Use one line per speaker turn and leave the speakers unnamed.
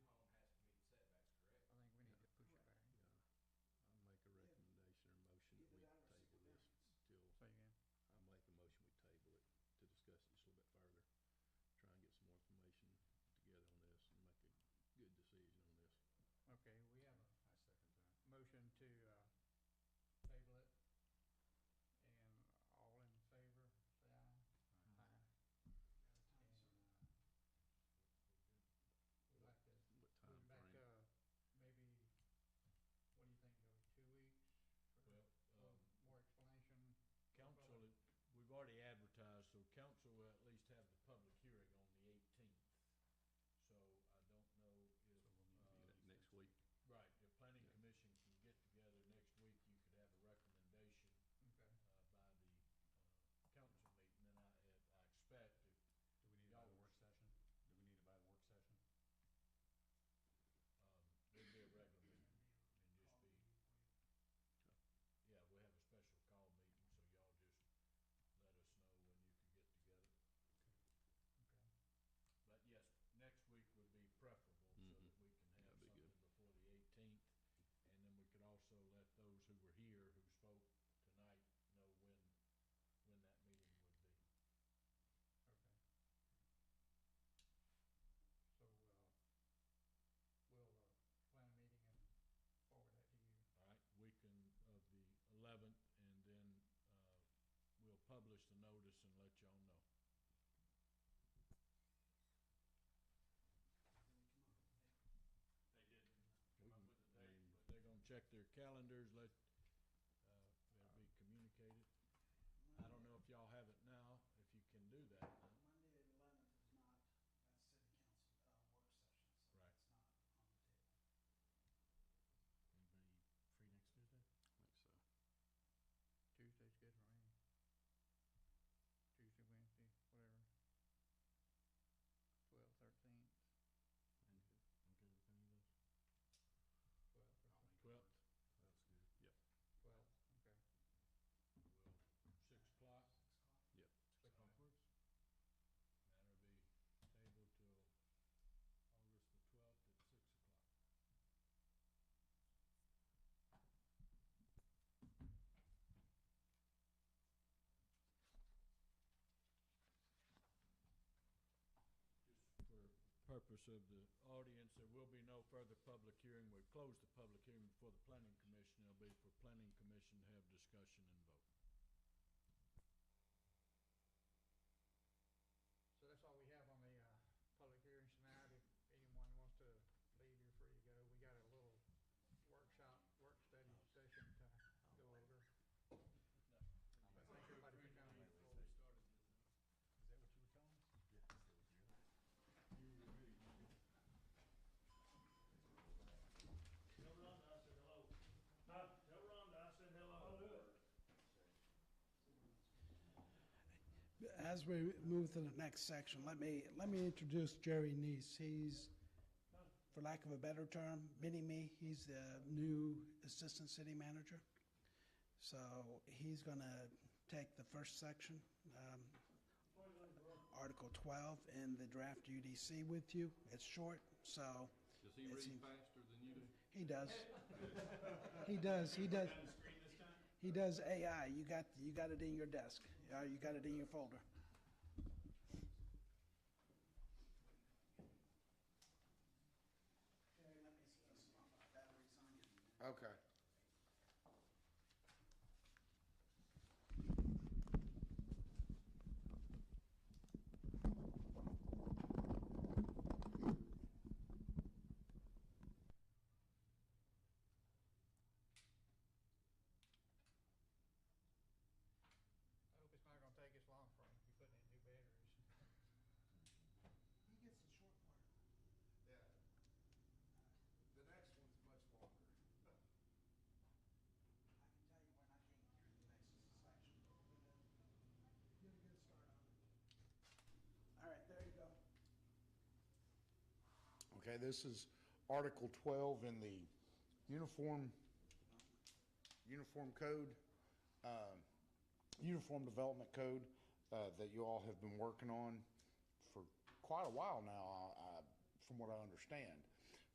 uh, uh,
Um, uh, uh, Um,
uh,
uh, calendars, let, uh, it'll be communicated. I don't know if y'all have it now, if you can do that now.
Monday the eleventh is not, that's city council, uh, work session, so
Right.
it's not on the table.
Anybody free next Tuesday?
I
Tuesday's good for me. Tuesday, Wednesday, whatever. Twelve, thirteenth. I'm good,
think so.
I'm good with any of those. Twelve, thirteenth. That's good. Twelve, okay.
Yep.
Twelfth, well, six o'clock.
Six o'clock.
Click
Alright.
on it.
That'll be tabled till August the twelfth at six o'clock. Just for purpose of the audience, there will be no further public hearing. We've closed the public hearing before the planning commission. It'll be for planning commission to have discussion and vote.
So that's all we have on the, uh, public hearings tonight. If anyone wants to leave, you're free to go. We got a little workshop, work study session to go over. But thank everybody for coming. Is that what you were calling?
Tell Rhonda I said hello. Huh? Tell Rhonda I said hello. I'll do it.
As we move to the next section, let me, let me introduce Jerry Neese. He's, for lack of a better term, mini-me. He's the new assistant city manager. So he's going to take the first section, um, Article 12 in the draft UDC with you. It's short, so
Uh, Does he
It
read
seems-
faster than you do?
he does. He does, he does. He does AI. You got, you got it in your desk. Uh, You got it in your folder.
Okay.
I hope it's not gonna take us long for him, if you're putting in new batteries.
He gets a short part.
Yeah. The next one's much longer.
I can tell you when I came here in the next section. Get a good start on it. All right, there you go.
Okay, this is Article twelve in the Uniform, Uniform Code, um, Uniform Development Code, uh, that you all have been working on for quite a while now, I, I- from what I understand.